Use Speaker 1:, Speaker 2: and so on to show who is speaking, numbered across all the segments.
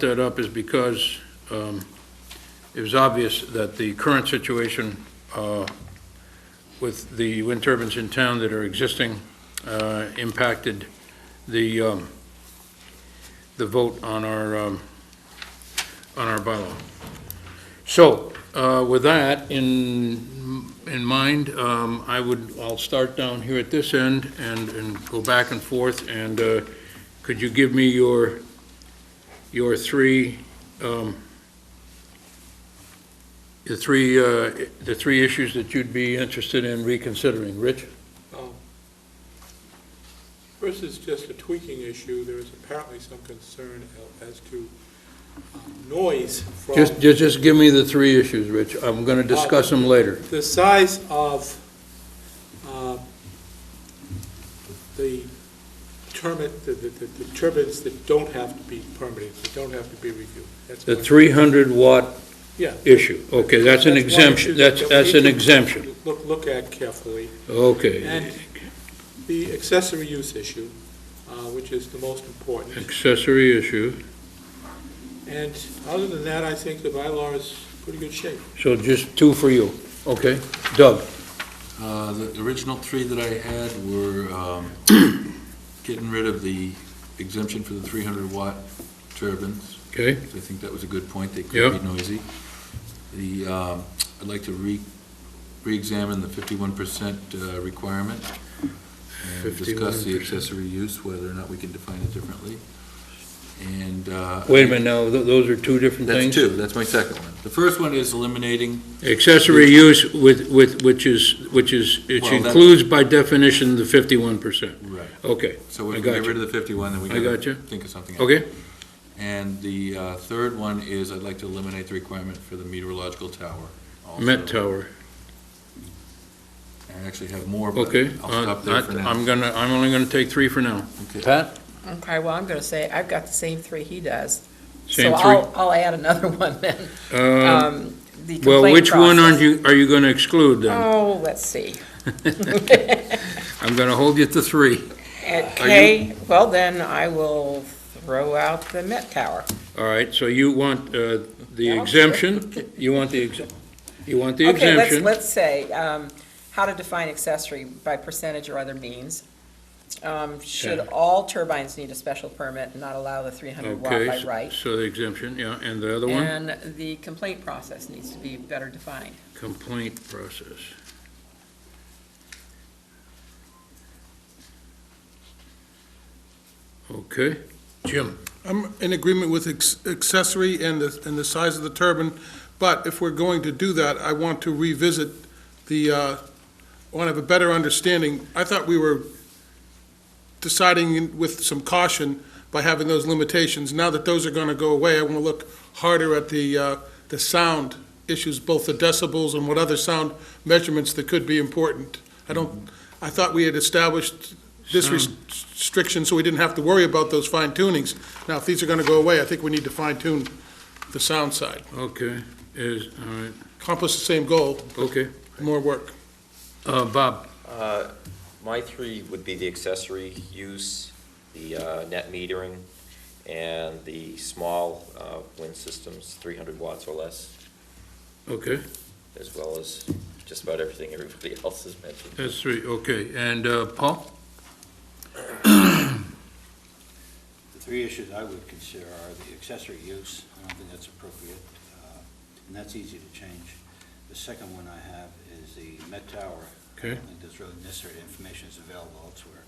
Speaker 1: that up is because um, it was obvious that the current situation uh, with the wind turbines in town that are existing uh, impacted the, um, the vote on our, um, on our bylaw. So uh, with that in, in mind, um, I would, I'll start down here at this end and, and go back and forth. And uh, could you give me your your three, um, the three, uh, the three issues that you'd be interested in reconsidering. Rich?
Speaker 2: Um, First is just a tweaking issue. There is apparently some concern as to um, noise from
Speaker 1: Just, just, just give me the three issues, Rich. I'm gonna discuss them later.
Speaker 2: the size of uh, the turbine, the- the the- the turbines that don't have to be permitted, that don't have to be reviewed. That's
Speaker 1: The
Speaker 2: one-
Speaker 1: three hundred watt
Speaker 2: Yeah.
Speaker 1: issue. Okay, that's an
Speaker 2: one issue
Speaker 1: exemption.
Speaker 2: that
Speaker 1: That's,
Speaker 2: we
Speaker 1: that's
Speaker 2: need
Speaker 1: an
Speaker 2: to
Speaker 1: exemption.
Speaker 2: Look, look at carefully.
Speaker 1: Okay.
Speaker 2: And the accessory use issue, uh, which is the most important.
Speaker 1: Accessory issue.
Speaker 2: And other than that, I think the bylaw is pretty good shape.
Speaker 1: So just two for you. Okay. Doug?
Speaker 3: Uh, The original three that I had were um, getting rid of the exemption for the 300-watt turbines.
Speaker 1: Okay.
Speaker 3: I think that was a good point. They
Speaker 1: Yep.
Speaker 3: could be noisy. The, um, I'd like to re, re-examine the 51% uh, requirement and discuss the
Speaker 1: 51%.
Speaker 3: accessory use, whether or not we can define it differently. And. uh,
Speaker 1: Wait a minute now. Th- Those are two different
Speaker 3: That's
Speaker 1: things?
Speaker 3: two. That's my second one. The first one is eliminating
Speaker 1: Accessory use with, with, which is, which is, it
Speaker 3: Well, that-
Speaker 1: includes by definition the fifty-one percent.
Speaker 3: Right.
Speaker 1: Okay,
Speaker 3: So
Speaker 1: I
Speaker 3: if we
Speaker 1: got
Speaker 3: get
Speaker 1: you.
Speaker 3: rid of the 51, then we
Speaker 1: I got you.
Speaker 3: gotta think of something else.
Speaker 1: okay,
Speaker 3: And the uh, third one is I'd like to eliminate the requirement for the meteorological tower. also.
Speaker 1: Met Tower,
Speaker 3: I actually have more, but
Speaker 1: okay.
Speaker 3: I'll stop there for
Speaker 1: Uh,
Speaker 3: now.
Speaker 1: I'm gonna, I'm only gonna take three for now.
Speaker 3: Okay.
Speaker 1: Pat?
Speaker 4: Okay, well, I'm going to say, I've got the same three he does.
Speaker 1: Same
Speaker 4: So I'll, I'll add another one then.
Speaker 1: Uh,
Speaker 4: Um, The
Speaker 1: Well,
Speaker 4: complaint
Speaker 1: which one aren't
Speaker 4: process.
Speaker 1: you, are you gonna exclude then?
Speaker 4: Oh, let's see. Oh.
Speaker 1: I'm gonna hold you to three.
Speaker 4: Okay, well then I will throw out the Met Tower.
Speaker 1: All right, so you want, uh, the
Speaker 4: Yeah.
Speaker 1: exemption? You want the ex, you want the
Speaker 4: Okay, let's,
Speaker 1: exemption?
Speaker 4: let's say, um, how to define accessory by percentage or other means. Um, Should
Speaker 1: Okay.
Speaker 4: all turbines need a special permit and not allow the 300 watt
Speaker 1: Okay,
Speaker 4: by
Speaker 1: so-
Speaker 4: right?
Speaker 1: so the exemption, yeah, and the other one?
Speaker 4: And the complaint process needs to be better defined.
Speaker 1: Complaint process. Okay, Jim,
Speaker 5: I'm in agreement with ex- accessory and the, and the size of the turbine, but if we're going to do that, I want to revisit the, uh, I want to have a better understanding. I thought we were deciding with some caution by having those limitations. Now that those are going to go away, I want to look harder at the, uh, the sound issues, both the decibels and what other sound measurements that could be important. I don't, I thought we had established this
Speaker 1: Sound.
Speaker 5: restriction, so we didn't have to worry about those fine tunings. Now, if these are going to go away, I think we need to fine tune the sound side.
Speaker 1: okay, is, all right,
Speaker 5: Accomplish the same goal,
Speaker 1: okay.
Speaker 5: more work.
Speaker 1: Uh, Bob,
Speaker 6: Uh, My three would be the accessory use, the uh, net metering, and the small uh, wind systems, 300 watts or less,
Speaker 1: okay,
Speaker 6: as well as just about everything everybody else has mentioned.
Speaker 1: that's three, okay, and, uh, Paul?
Speaker 7: The three issues I would consider are the accessory use, I don't think that's appropriate, uh, and that's easy to change. The second one I have is the Met Tower. I
Speaker 1: Okay.
Speaker 7: don't think there's really necessary information is available elsewhere.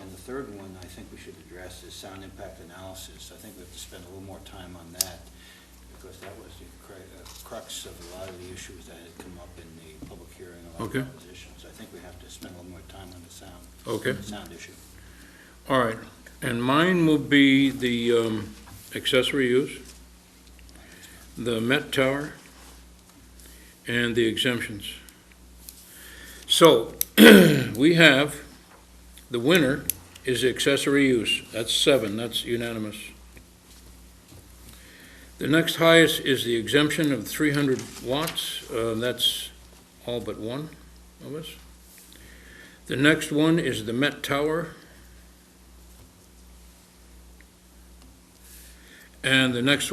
Speaker 7: And the third one I think we should address is sound impact analysis. I think we have to spend a little more time on that, because that was the cru- uh, crux of a lot of the issues that had come up in the public hearing, a lot
Speaker 1: Okay.
Speaker 7: of propositions. I think we have to spend a little more time on the sound.
Speaker 1: Okay.
Speaker 7: Sound issue.
Speaker 1: All right, and mine will be the, um, accessory use, the Met Tower, and the exemptions. So, we have, the winner is accessory use, that's seven, that's unanimous. The next highest is the exemption of three hundred watts, uh, that's all but one of us. The next one is the Met Tower, And the next